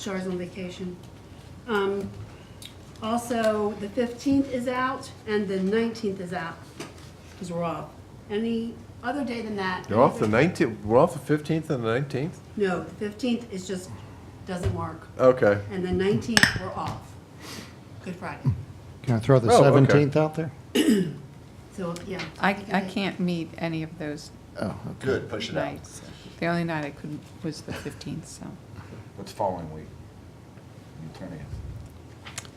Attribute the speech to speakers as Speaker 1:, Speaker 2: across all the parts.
Speaker 1: Char's on vacation. Um, Also, the 15th is out and the 19th is out, because we're off. Any other day than that?
Speaker 2: You're off the 19th, we're off the 15th and the 19th?
Speaker 1: No, the 15th is just, doesn't work.
Speaker 2: Okay.
Speaker 1: And the 19th, we're off. Good Friday.
Speaker 3: Can I throw the
Speaker 2: Oh, okay.
Speaker 3: 17th out there?
Speaker 1: So, yeah.
Speaker 4: I, I can't meet any of those
Speaker 3: Oh, okay.
Speaker 5: Good, push it out.
Speaker 4: nights. The only night I couldn't was the 15th, so.
Speaker 5: What's following week? The 20th.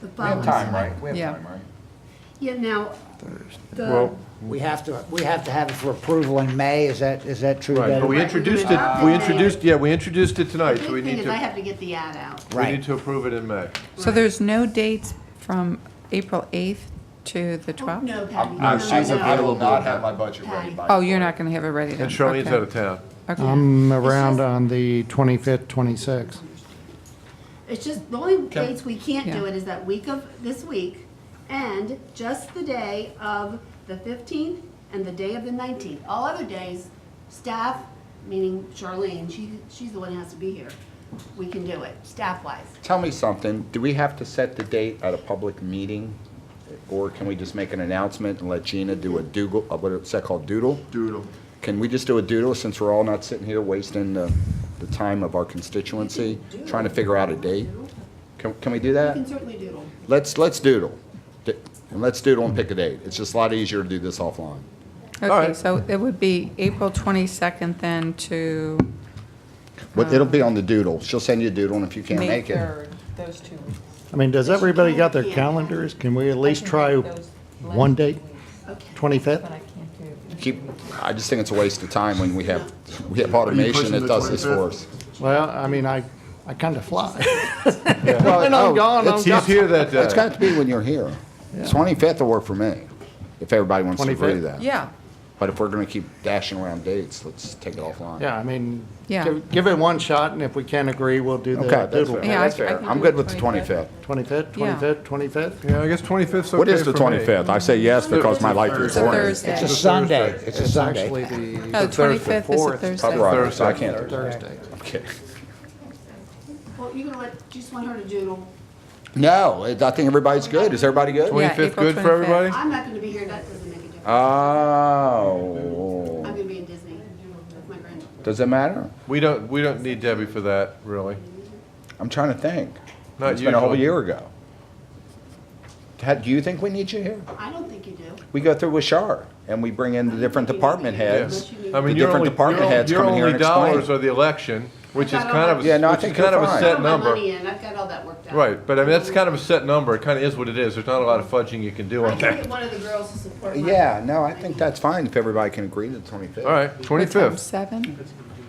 Speaker 1: The
Speaker 5: We have
Speaker 1: following-
Speaker 5: time, right? We
Speaker 4: Yeah.
Speaker 5: have time, right?
Speaker 1: Yeah, now, the,
Speaker 2: Well,
Speaker 6: We have to, we have to have it for approval in May, is that, is that true?
Speaker 2: right, but we
Speaker 1: Right.
Speaker 2: introduced it, we introduced, yeah, we introduced it
Speaker 1: the
Speaker 2: tonight, so we
Speaker 1: big thing
Speaker 2: need
Speaker 1: is I have
Speaker 2: to,
Speaker 1: to get the ad out. Oh,
Speaker 2: we
Speaker 6: Right.
Speaker 2: need to approve it in May.
Speaker 4: So there's no dates from April 8th to the 12th?
Speaker 1: No, Patty.
Speaker 5: I
Speaker 1: no,
Speaker 2: she's
Speaker 1: no,
Speaker 5: will- I
Speaker 1: no.
Speaker 5: will not have my budget ready by.
Speaker 4: Oh, you're not going to have it ready then?
Speaker 2: And Charlene's
Speaker 4: Okay.
Speaker 2: out of town.
Speaker 4: Okay.
Speaker 3: I'm around on the 25th, 26th.
Speaker 1: It's just, the only dates we can't do
Speaker 4: Yeah.
Speaker 1: it is that week of, this week, and just the day of the fifteenth and the day of the nineteenth. All other days, staff, meaning Charlene, she, she's the one who has to be here, we can do it, staff-wise.
Speaker 5: Tell me something, do we have to set the date at a public meeting? Or can we just make an announcement and let Gina do a doodle, uh, what is that called, doodle?
Speaker 2: Doodle.
Speaker 5: Can we just do a doodle since we're all not sitting here wasting the, the time of our constituency, trying to figure out a date? Can, can we do
Speaker 1: You
Speaker 5: that?
Speaker 1: can certainly doodle.
Speaker 5: Let's, let's doodle. D- And let's doodle and pick a date. It's just a lot easier to do this offline.
Speaker 4: Okay,
Speaker 2: right.
Speaker 4: so it would be April 22nd then to Um,
Speaker 5: But it'll be on the doodle. She'll send you a doodle and if you can't
Speaker 4: May
Speaker 5: make it.
Speaker 4: 3rd, those two weeks.
Speaker 3: I mean, does everybody got their calendars? Can we at least try one date,
Speaker 1: Okay.
Speaker 3: 25th?
Speaker 4: I can't do.
Speaker 5: Keep, I just think it's a waste of time when we have, we have automation that does this for us.
Speaker 3: Well, I mean, I, I kind of fly.
Speaker 5: Well,
Speaker 3: When I'm
Speaker 5: oh,
Speaker 3: gone, I'm
Speaker 5: it's-
Speaker 2: He's here that
Speaker 5: It's
Speaker 2: day.
Speaker 5: got to be when you're here. Twenty-fifth will work for me, if everybody wants to agree to
Speaker 3: 25th?
Speaker 5: that.
Speaker 4: Yeah,
Speaker 5: But if we're going to keep dashing around dates, let's take it offline.
Speaker 3: Yeah, I mean,
Speaker 4: Yeah.
Speaker 3: give give it one shot, and if we can't agree, we'll do
Speaker 5: Okay,
Speaker 3: the
Speaker 5: that's
Speaker 3: doodle.
Speaker 5: fair.
Speaker 4: Yeah, I-
Speaker 5: That's
Speaker 4: I
Speaker 5: fair.
Speaker 4: can
Speaker 5: I'm
Speaker 4: do
Speaker 5: good
Speaker 4: the
Speaker 5: with the
Speaker 4: 25th.
Speaker 5: twenty-fifth.
Speaker 3: 25th,
Speaker 4: Yeah.
Speaker 3: 25th, 25th?
Speaker 2: Yeah, I guess 25th's okay
Speaker 5: What is the
Speaker 2: for me.
Speaker 5: twenty-fifth? I say yes because my life is
Speaker 4: it's a
Speaker 5: boring.
Speaker 4: Thursday.
Speaker 6: It's a Sunday, it's a
Speaker 3: It's actually
Speaker 6: Sunday.
Speaker 3: the
Speaker 4: No,
Speaker 2: the Thursday.
Speaker 4: 25th is a
Speaker 3: Fourth.
Speaker 5: All
Speaker 4: Thursday.
Speaker 5: right, so I can't.
Speaker 3: Thursday.
Speaker 5: Okay.
Speaker 1: Well, you're gonna let, do you just want her to doodle.
Speaker 5: No, it- I think everybody's good. Is everybody good?
Speaker 4: Yeah,
Speaker 2: 25th
Speaker 4: April
Speaker 2: good for everybody?
Speaker 1: I'm not gonna be here, that doesn't make a difference. I'm
Speaker 5: Oh,
Speaker 1: gonna be in Disney with my granddaughter.
Speaker 5: does it matter?
Speaker 2: We don't, we don't need Debbie for that, really.
Speaker 5: I'm trying to think.
Speaker 2: Not
Speaker 5: It's been a whole
Speaker 2: usually.
Speaker 5: year ago. Had- Do you think we need you here?
Speaker 1: I don't think you do.
Speaker 5: We go through with Shar, and we bring in the different department heads.
Speaker 2: Yes. I
Speaker 1: The
Speaker 2: mean, your
Speaker 5: different
Speaker 2: only,
Speaker 5: department
Speaker 2: your-
Speaker 5: heads
Speaker 2: your
Speaker 5: come in here
Speaker 2: only
Speaker 5: and explain.
Speaker 2: dollars are the election, which is
Speaker 1: I've got
Speaker 2: kind
Speaker 1: all
Speaker 2: of,
Speaker 1: my-
Speaker 2: a
Speaker 5: Yeah, no, I
Speaker 2: which is
Speaker 5: think you're
Speaker 2: kind of a
Speaker 5: fine.
Speaker 2: set
Speaker 1: Put my
Speaker 2: number.
Speaker 1: money in, I've got all that worked out.
Speaker 2: Right, but I mean, that's kind of a set number, it kind of is what it is, there's not a lot of fudging you can do
Speaker 1: I
Speaker 2: on
Speaker 1: can
Speaker 2: that.
Speaker 1: get one of the girls to support my.
Speaker 5: Yeah, no, I think that's fine if everybody can agree to the 25th.
Speaker 2: All right, twenty-fifth,
Speaker 4: Seven?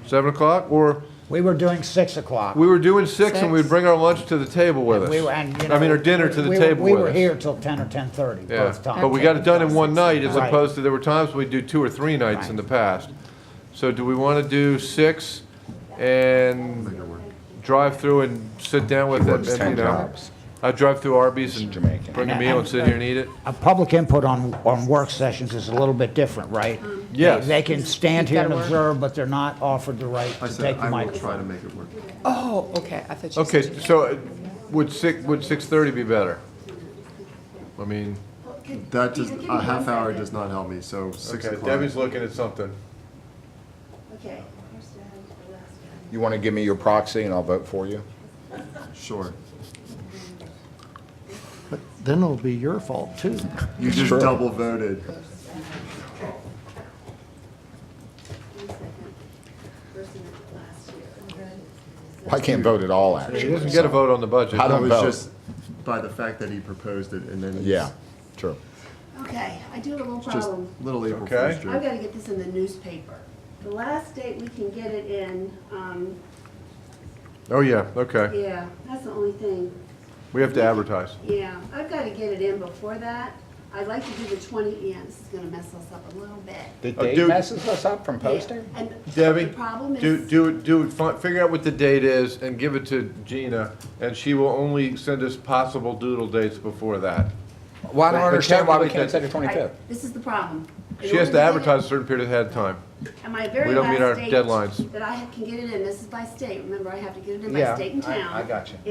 Speaker 2: seven o'clock, or,
Speaker 6: We were doing 6 o'clock.
Speaker 2: we were doing six and we'd
Speaker 4: Six.
Speaker 2: bring our lunch to the table with us.
Speaker 6: We were- and, you
Speaker 2: I mean,
Speaker 6: know,
Speaker 2: our dinner to the
Speaker 6: we were-
Speaker 2: table
Speaker 6: We
Speaker 2: with
Speaker 6: were
Speaker 2: us.
Speaker 6: here till 10 or 10:30
Speaker 2: Yeah,
Speaker 6: both times.
Speaker 2: but we got it done in one night as
Speaker 6: Right.
Speaker 2: opposed to, there were times we'd do two or three nights in the past. So do we want to do six and drive through and sit down with
Speaker 5: works
Speaker 2: it, and, you
Speaker 5: 10
Speaker 2: know?
Speaker 5: jobs.
Speaker 2: I drive through Arby's and
Speaker 5: Jamaican.
Speaker 2: bring a meal and sit here and eat it?
Speaker 6: A public input on, on work sessions is a little bit different, right?
Speaker 2: Yes.
Speaker 6: They they can stand
Speaker 4: You've
Speaker 6: here
Speaker 4: gotta
Speaker 6: and
Speaker 4: work.
Speaker 6: observe, but they're not offered the right to take the microphone.
Speaker 7: to make it work.
Speaker 4: Oh, okay, I thought you said.
Speaker 2: Okay, so uh, would six, would six-thirty be better? I mean,
Speaker 7: That does, a half hour does not help me, so six
Speaker 2: okay,
Speaker 7: o'clock.
Speaker 2: Debbie's looking at something.
Speaker 1: Okay.
Speaker 5: You want to give me your proxy and I'll vote for you?
Speaker 7: Sure.
Speaker 3: But then it'll be your fault, too.
Speaker 7: You just
Speaker 5: Sure.
Speaker 7: double voted.
Speaker 5: Well, I can't vote at all,
Speaker 2: She
Speaker 5: actually.
Speaker 2: doesn't get a vote on the budget.
Speaker 5: I
Speaker 7: That
Speaker 5: don't
Speaker 7: was
Speaker 5: vote.
Speaker 7: just by the fact that he proposed it and then. it's
Speaker 5: Yeah, true.
Speaker 1: Okay, I do have a little
Speaker 7: Just
Speaker 1: problem.
Speaker 7: little April
Speaker 2: Okay.
Speaker 7: Fool's
Speaker 1: I've
Speaker 7: joke.
Speaker 1: got to get this in the newspaper. The last date we can get it in, um,
Speaker 2: Oh, yeah, okay.
Speaker 1: yeah, that's the only thing.
Speaker 2: We have to advertise.
Speaker 1: Yeah, I've got to get it in before that. I'd like to do the twenty, yeah, this is going to mess us up a little bit.
Speaker 5: The
Speaker 2: Oh, dude.
Speaker 5: date messes us up from posting?
Speaker 1: Yeah, and the
Speaker 2: Debbie,
Speaker 1: problem
Speaker 2: do,
Speaker 1: is-
Speaker 2: do, do, fi- figure out what the date is and give it to Gina, and she will only send us possible doodle dates before that.
Speaker 5: Well,
Speaker 2: But-
Speaker 5: I don't
Speaker 2: but
Speaker 5: understand why we
Speaker 2: calculate
Speaker 5: can't
Speaker 2: that-
Speaker 5: say the
Speaker 1: I-
Speaker 5: 25th.
Speaker 1: This is the problem. In
Speaker 2: She has
Speaker 1: order
Speaker 2: to
Speaker 1: get it-
Speaker 2: advertise a certain period ahead of time.
Speaker 1: And my very
Speaker 2: We don't meet our
Speaker 1: last date
Speaker 2: deadlines.
Speaker 1: that I can get it in, this is by state, remember, I have to get it in by
Speaker 5: Yeah,
Speaker 1: state and
Speaker 5: I-
Speaker 1: town.
Speaker 5: I got you.